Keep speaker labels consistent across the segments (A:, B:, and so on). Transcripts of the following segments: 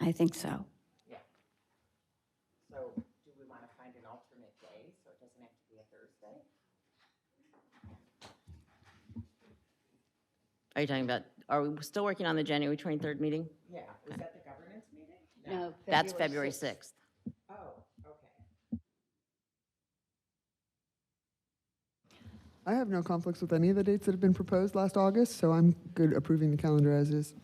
A: I think so.
B: So do we want to find an alternate day, so it doesn't have to be a Thursday?
C: Are you talking about, are we still working on the January 23rd meeting?
B: Yeah, was that the governance meeting?
C: That's February 6th.
B: Oh, okay.
D: I have no conflicts with any of the dates that have been proposed last August, so I'm good approving the calendar as is.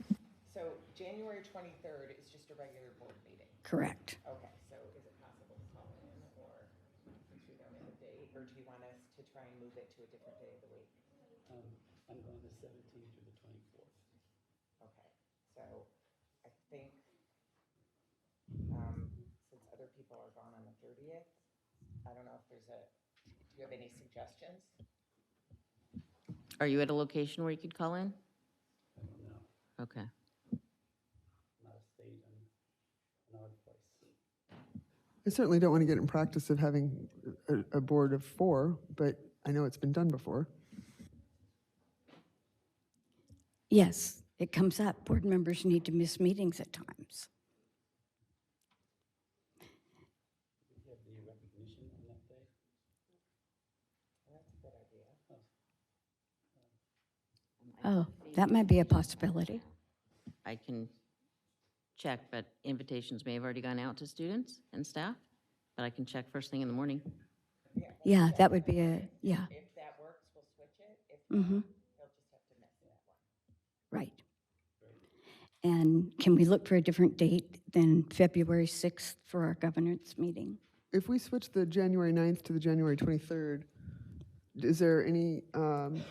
B: So January twenty-third is just a regular board meeting.
A: Correct.
B: Okay, so is it possible to call in or to them a date, or do you want us to try and move it to a different day of the week?
E: Um, I'm going the seventeenth to the twenty-fourth.
B: Okay, so I think, um, since other people are gone on the thirtieth, I don't know if there's a, do you have any suggestions?
C: Are you at a location where you could call in?
E: I don't know,
C: Okay.
E: I'm out of state, I'm in an odd place.
D: I certainly don't want to get in practice of having a, a board of four, but I know it's been done before.
A: Yes, it comes up. Board members need to miss meetings at times.
E: Do you have the recognition on that day?
B: That's a good idea.
A: Oh, that might be a possibility.
C: I can check, but invitations may have already gone out to students and staff, but I can check first thing in the morning.
B: Yeah, let's
A: Yeah,
B: check.
A: that would be a, yeah,
B: If that works, we'll switch it. If
A: Mhm.
B: not, they'll just have to miss that one.
A: right. And can we look for a different date than February 6th for our governance meeting?
D: If we switch the January 9th to the January 23rd, is there any um,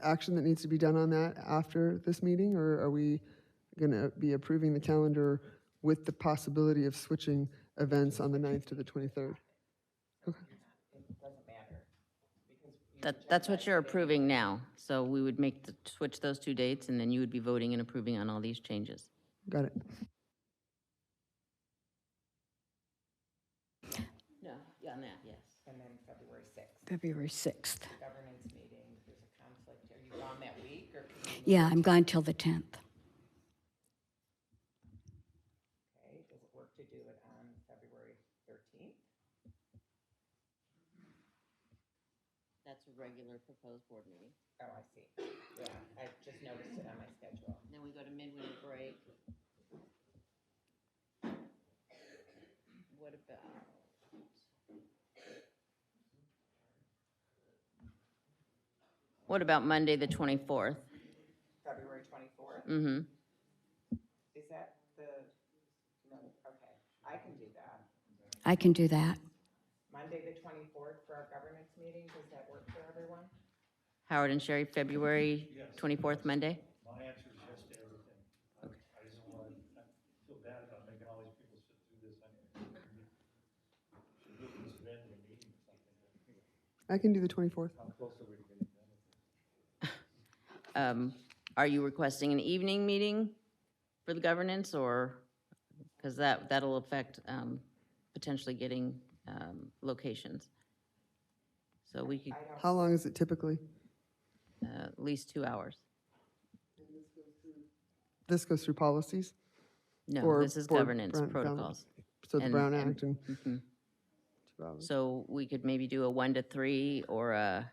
D: action that needs to be done on that after this meeting? Or are we going to be approving the calendar with the possibility of switching events on the 9th to the 23rd?
B: It doesn't matter. because you
C: That,
B: reject
C: that's
B: that
C: what you're
B: today.
C: approving now. So we would make, the switch those two dates, and then you would be voting and approving on all these changes.
D: Got it.
C: No, yeah, on that, yes.
B: And then February sixth,
A: February 6th.
B: governance meeting, there's a conflict. Are you gone that week or can you?
A: Yeah, I'm gone till the 10th.
B: Okay, does it work to do it on February thirteenth?
C: That's a regular proposed board meeting.
B: Oh, I see. Yeah, I just noticed it on my schedule.
C: Then we go to midwinter break. What about? What about Monday, the 24th?
B: February twenty-fourth,
C: Mm-hmm.
B: is that the, no, okay, I can do that.
A: I can do that.
B: Monday, the twenty-fourth for our governance meeting, does that work for everyone?
C: Howard and Sherry, February 24th, Monday?
F: My answer is yes to everything. I I just don't want to, I feel bad about making all these people sit through this. I mean, Should we just end the meeting or something?
D: I can do the 24th.
F: How close are we to getting done?
C: Um, Are you requesting an evening meeting for the governance, or, because that, that'll affect um, potentially getting um, locations. So we could,
B: I don't,
D: How long is it typically?
C: uh, at least two hours.
D: This goes through policies?
C: No,
D: Or
C: this is
D: board
C: governance
D: Brown- Brown-
C: protocols.
D: So the
C: And-
D: Brown
C: and-
D: Act and
C: Mhm.
D: two hours.
C: So we could maybe do a one to three or a,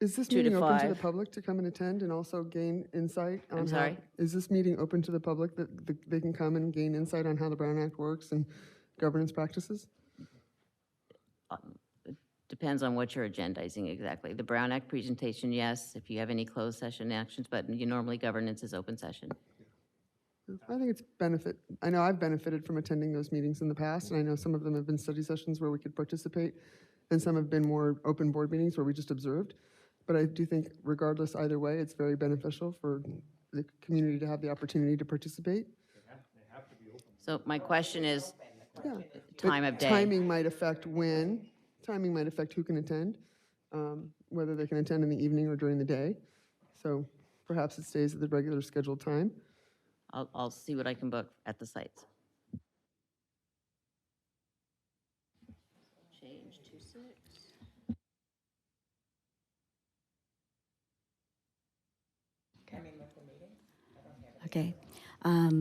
D: Is this
C: two to
D: meeting open to the
C: five.
D: public to come and attend and also gain insight on how?
C: sorry?
D: Is this meeting open to the public that the- they can come and gain insight on how the Brown Act works and governance practices?
C: depends on what you're agendizing exactly. The Brown Act presentation, yes, if you have any closed session actions, but you normally governance is open session.
D: I think it's benefit, I know I've benefited from attending those meetings in the past, and I know some of them have been study sessions where we could participate, and some have been more open board meetings where we just observed. But I do think regardless either way, it's very beneficial for the community to have the opportunity to participate.
C: So my question is,
D: But
C: time of day.
D: Timing might affect when, timing might affect who can attend, um, whether they can attend in the evening or during the day. So perhaps it stays at the regular scheduled time.
C: I'll, I'll see what I can book at the sites. Change to six.
B: coming with the meeting? I don't have it.
A: Okay. Um,